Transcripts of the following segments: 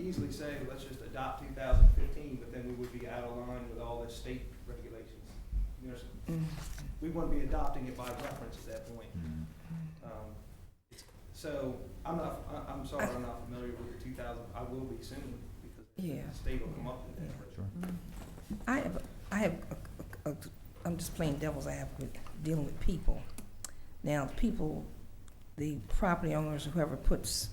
easily say, let's just adopt two thousand fifteen, but then we would be out of line with all the state regulations. You know, so Mm-hmm. we wouldn't be adopting it by reference at that point. Mm, Um, So, I'm not, I- I'm sorry, I'm not familiar with the two thousand, I will be soon, because Yeah. the state will come up with that. Sure. I have, I have, a- a- a- I'm just playing devil's advocate, dealing with people. Now, people, the property owners, whoever puts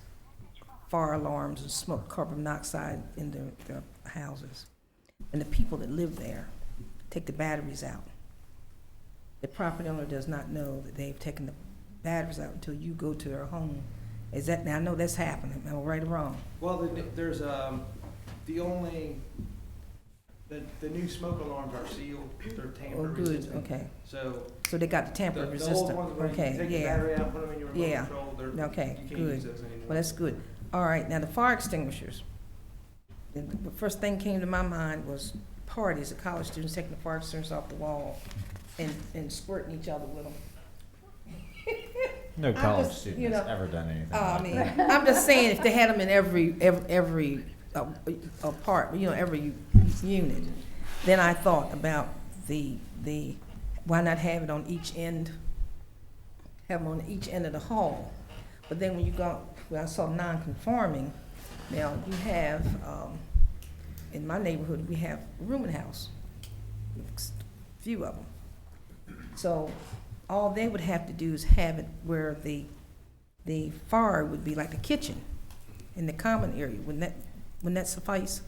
fire alarms and smoke carbon monoxide in their, their houses, and the people that live there take the batteries out. The property owner does not know that they've taken the batteries out until you go to their home. Is that, now, I know that's happening, am I right or wrong? Well, the, there's, um, the only, the, the new smoke alarms are sealed, they're Oh, tamper good, resistant. okay. So, So they got the the tamper the old resistant, ones, where you okay, yeah. take the battery out, put them in your Yeah. remote control, they're, you Okay, can't good. use those anymore. Well, that's good. All right, now the fire extinguishers. The the first thing came to my mind was parties, the college students taking the fire extinguishers off the wall and, and squirting each other with them. No I'm college just, student you has know, ever done anything Uh, I like mean, that. I'm just saying, if they had them in every, every, every uh, apartment, you know, every unit, then I thought about the, the, why not have it on each end? Have them on each end of the hall. But then when you go, when I saw non-conforming, now you have, um, in my neighborhood, we have rooming house, few of them. So all they would have to do is have it where the the fire would be like the kitchen in the common area. Wouldn't that, wouldn't that suffice?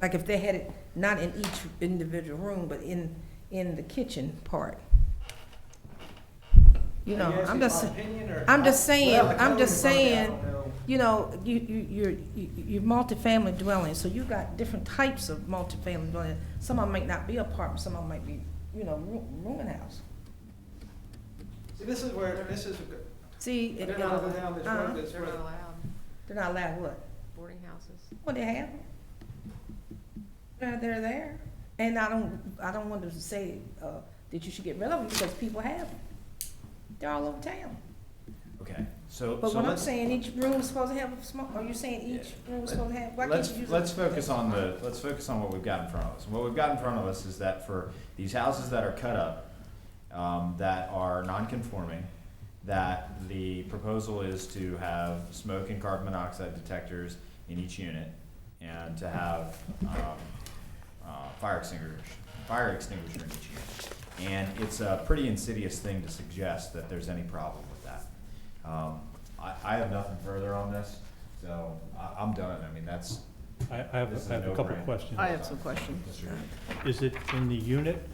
Like if they had it not in each individual room, but in, in the kitchen part. You know, Are asking I'm just, my opinion, or- I'm just I- saying- well, the I'm just code is saying- out, I don't know. you know, you, you, you're, you- you're multifamily dwelling, so you got different types of multifamily dwelling. Some of them might not be apartments, some of them might be, you know, roo- rooming house. See, this is where, this is, See? it- they're not allowed down this Uh-huh. road, that's They're where, not allowed, They're not allowed what? boarding houses. Well, they have. They're, they're there. And I don't, I don't want to say, uh, that you should get rid of them because people have them. They're all over town. Okay, so, But so what I'm let's, saying, each room is supposed to have a smoke, are you saying each room is supposed to have, why can't let's, you use? a- let's focus on the, let's focus on what we've got in front of us. And What we've got in front of us is that for these houses that are cut up, um, that are non-conforming, that the proposal is to have smoke and carbon monoxide detectors in each unit and to have, um, uh, fire extinguisher, fire extinguisher in each unit. And it's a pretty insidious thing to suggest that there's any problem with that. Um, I, I have nothing further on this, so I, I'm done. I mean, that's. I, I have, This is I have a a couple no-brainer. questions. I have some questions. Mr. Is it in the unit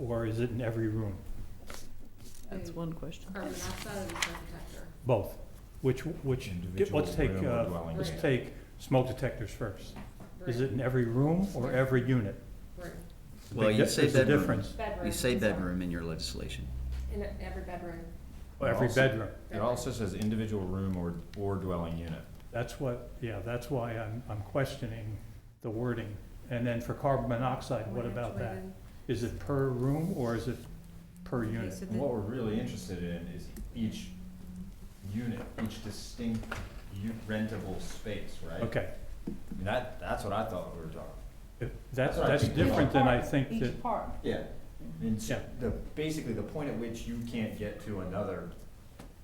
or is it in every room? That's one question. Carbon monoxide and smoke detector. Both? Which, which, get- let's Individual take, room or uh, dwelling let's unit. take smoke detectors first. Is Room, it in every room or every unit? room. Well, Big you di- say there's a bedroom. difference. Bedroom. You say I'm sorry. bedroom in your legislation. In a- every bedroom. Or Every Also- bedroom. It also says individual room or, or dwelling unit. That's what, yeah, that's why I'm, I'm questioning the wording. And then for carbon monoxide, what One about that? actuated- Is it per room or is it per unit? so And what we're really interested in is each unit, each distinct u- rentable space, right? Okay, I mean, That, that's what I thought we were talking. If- That's that's, what I that's think we different than I think that, Each part. Yeah. And so Yeah. the, basically the point at which you can't get to another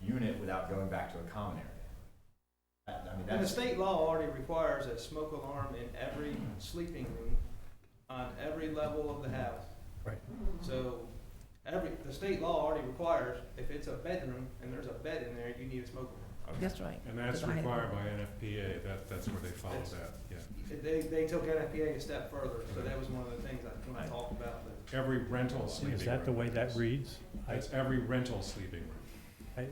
unit without going back to a common area. That- I mean, and the that's, state law already requires a smoke alarm in every sleeping room on every level of the house. Right. So, every, the state law already requires, if it's a bedroom and there's a bed in there, you need a smoke alarm. That's right. And that's Because I had- required by NFPA, that, that's where they follow that, yeah. They, they took NFPA a step further, so that was one of the things I wanted to talk about, but Every rental sleeping room. is that the way that reads? I- That's every rental sleeping room.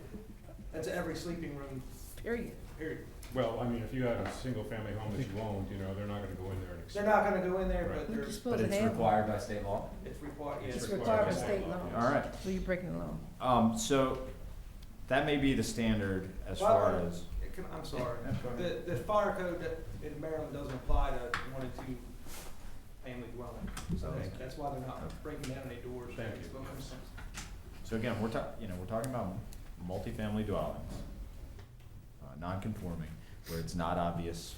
that's every sleeping room, Period. period. Well, I mean, if you had a single-family home that you owned, you know, they're not gonna go in there and. They're not gonna go in there, Right. but You're there's, supposed but to it's have. them. required by state law. it's required, yes. It's required required by by state law. law. All right, So you're breaking the law. um, so that may be the standard as Well, far uh, as. It can- I'm sorry. Yeah, go ahead. The, the fire code that in Maryland doesn't apply to one and two family dwelling. So that's- that's why they're not breaking down any doors. Thank you. So again, we're talk, you know, we're talking about multifamily dwellings, uh, non-conforming, where it's not obvious